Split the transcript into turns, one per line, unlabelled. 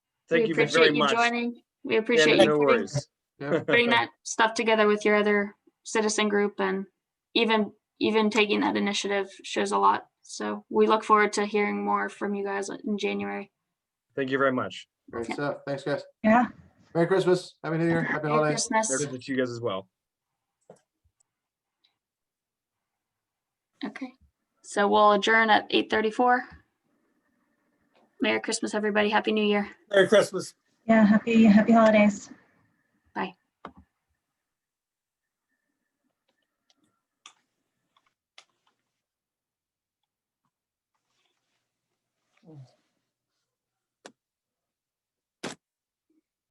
Thank
we
you
appreciate
very much.
joining. We
Yeah,
appreciate you
No
putting,
worries.
putting that stuff together with your other citizen group and even even taking that initiative shows a lot. So we look forward to hearing more from you guys in January.
Thank you very much.
Great
Yeah.
stuff. Thanks, guys.
Yeah.
Merry Christmas. Happy New Year. Happy
Merry
holidays.
Merry
Christmas.
Christmas to you guys as well.
Okay. So we'll adjourn at 8:34. Merry Christmas, everybody. Happy New Year.
Merry Christmas.
Yeah, happy, happy holidays.